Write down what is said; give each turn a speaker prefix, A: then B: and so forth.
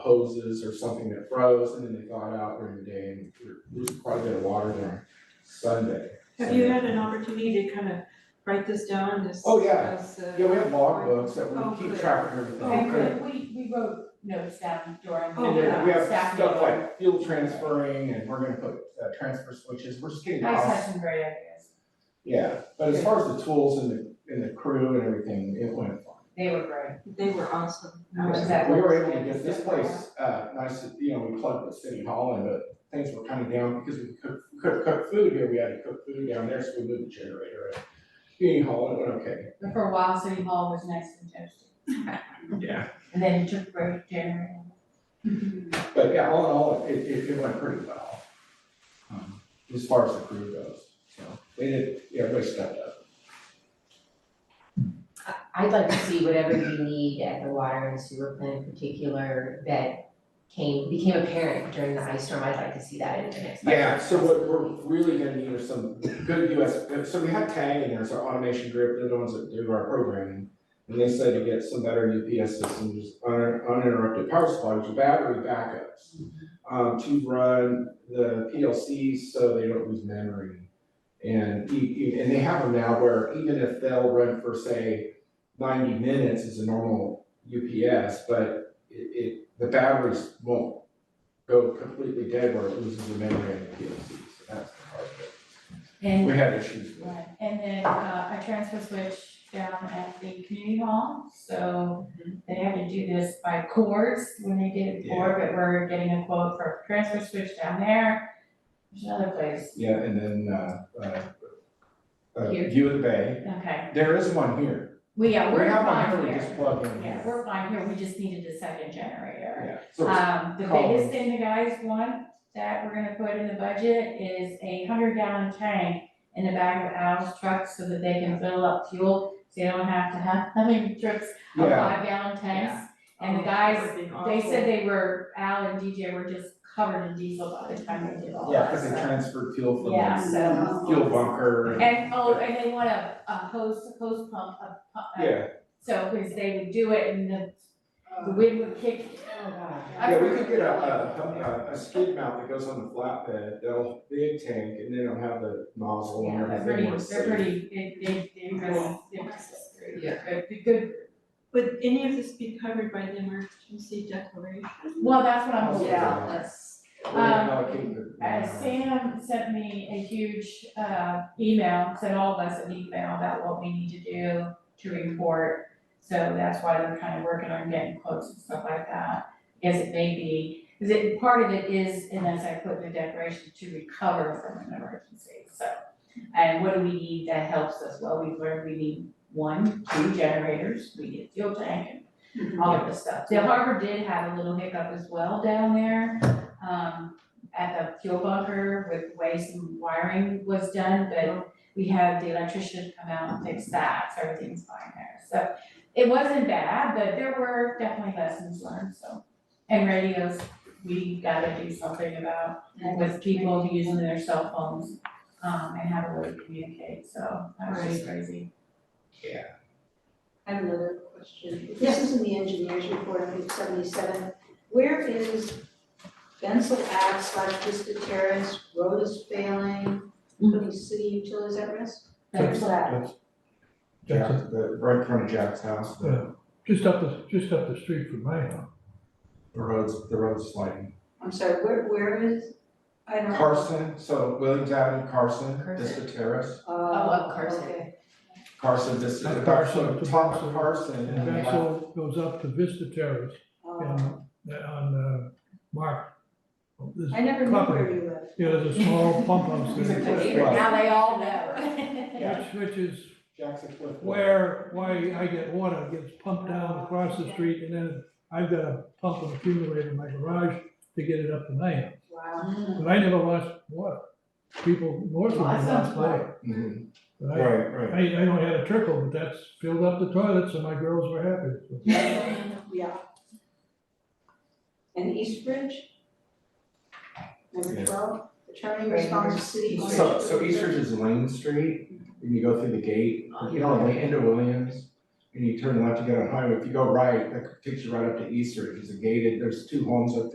A: hoses or something that froze, and then they thawed out during the day, and there was quite a bit of water during Sunday.
B: Have you had an opportunity to kind of write this down, this?
A: Oh, yeah.
B: as, uh,
A: Yeah, we have log books that
B: Oh,
A: we keep
B: good.
A: track of everything.
B: Oh, good.
C: And we, we wrote notes down during.
B: Oh,
A: And then we have
C: staff
A: stuff
C: meeting.
A: like fuel transferring, and we're gonna put uh, transfer switches, we're just getting
C: I just
A: off.
C: had some great ideas.
A: Yeah, but as far as the tools and the, and the crew and everything, it went fine.
C: They were great.
B: They were awesome.
C: How was
A: Yeah,
C: that
A: We were
C: work?
A: able to get this place, uh, nice, you know, we plugged the city hall in, but things were kind of down because we could, could cook food here, we had to cook food down there, so we moved the generator at community hall, and it went okay.
C: But for a while, City Hall was nice and toasty.
A: Yeah.
C: And then you took break January.
A: But yeah, all in all, it, it, it went pretty well, um, as far as the crew goes, so they did, yeah, everybody stepped up.
D: I'd like to see whatever you need at the water and sewer plant in particular that came, became apparent during the ice storm, I'd like to see that in the next. budget.
A: Yeah, so what we're really gonna need are some good US, so we have TAG in there, it's our automation group, they're the ones that do our programming. And they said to get some better UPS systems, un- uninterrupted power supply, which are battery backups. Um, to run the PLCs so they don't lose memory. And you, you- and they have them now where even if they'll run for say ninety minutes is a normal UPS, but it, it, the batteries won't go completely dead where it loses the memory and the PLC, so that's the part that
C: And,
A: we had issues with.
C: right, and then, uh, I transfer switch down at the community hall, so they had to do this by cords when they did it before, but we're getting a quote for transfer switch down there. There's another place,
A: Yeah, and then, uh, uh, uh,
C: Here.
A: View of the Bay,
C: okay.
A: there is one here.
C: Well, yeah,
A: We
C: we're
A: have one
C: fine
A: here, we
C: here.
A: just plug in
C: Yeah,
A: here.
C: we're fine here, we just needed a second generator.
A: Yeah, so it's-
C: Um, the
A: Colin.
C: biggest thing the guys want that we're gonna put in the budget is a hundred gallon tank in the back of Al's truck so that they can fill up fuel, so you don't have to have, how many trips of
A: yeah,
C: five gallon tanks? And the
B: Oh,
C: guys,
B: that would've been
C: They said
B: awful.
C: they were, Al and DJ were just covered in diesel by the time they did all
A: yeah,
C: that,
A: cause they
C: so.
A: transferred fuel from
C: Yeah,
A: the
C: so,
A: fuel bunker and,
C: and, oh, and they want a, a hose, hose pump, a pump, a
A: yeah,
C: so, because they would do it and the, the wind would kick, oh god.
A: yeah, we could get a, uh, a, a- a skid mount that goes on the flatbed, they'll, big tank, and then it'll have the nozzle and
C: Yeah, they're
A: everything.
C: pretty,
A: where it's
C: they're
A: safe.
C: pretty, they, they, they impress, they impress us.
E: Yeah.
C: They're a good,
B: Would any of this be covered by the emergency declaration?
C: well, that's what I'm hoping.
E: Yeah, that's,
A: We're
C: um,
A: gonna allocate the-
C: Uh, Sam sent me a huge, uh, email, sent all of us an email about what we need to do to report. So that's why they're kind of working on getting quotes and stuff like that, Yes, it may be, because it, part of it is, and as I put in the declaration, to recover from an emergency, so. And what do we need that helps us? Well, we've learned we need one, two generators, we need a fuel tank and all of this stuff. The harbor did have a little hiccup as well down there, um, at the fuel bunker with the way some wiring was done, but we had the electrician come out and fix that, so everything's fine there. So it wasn't bad, but there were definitely lessons learned, so. And radios, we gotta do something about with people using their cell phones, um, and how to really communicate, so that was just crazy.
F: I have another question. If This is in the engineer's report on page seventy-seven. Where is Bensel Ave slash Vista Terrace, road is failing, putting city utilities at risk? Where's that?
A: Jack,
G: Jackson,
A: the, right in front of Jack's house, the,
G: just up the, just up the street from my house.
A: the road's, the road's sliding.
F: I'm sorry, where, where is? I don't.
A: Carson, so Williams Avenue, Carson, Vista Terrace,
F: Oh,
C: up Carson.
F: okay.
A: Carson, Vista,
G: Not
A: Carson,
G: Carson,
A: top of
G: Carson.
A: Carson, and
G: And
A: then
G: that
A: left.
G: all goes up to Vista Terrace
F: Oh.
G: on, on, uh, Mark. There's-
F: I never knew
G: Property.
F: where you lived.
G: Yeah, there's a small pump house
A: He's a
G: there,
A: cliff dweller.
C: Now they all know.
G: which, which is
A: Jack's a cliff dweller.
G: where, why I get water, it gets pumped down across the street, and then I've got a pump and accumulator in my garage to get it up to my house.
F: Wow.
G: But I never lost water. People north of me
C: Lots of
G: lost water.
A: Mhm.
G: But I,
A: Right, right.
G: I, I only had a trickle, but that's filled up the toilet, so my girls were happy. So-
F: Yeah. And Eastridge? Number
A: Yeah.
F: twelve, attorney
C: Right.
F: responds to city. ownership
A: So, so
F: of
A: Eastridge is Lane Street, and you go through the gate, you know, on the end of Williams, and you turn left to get on highway, if you go right, that takes you right up to Easter, It's a gated, there's two homes up there.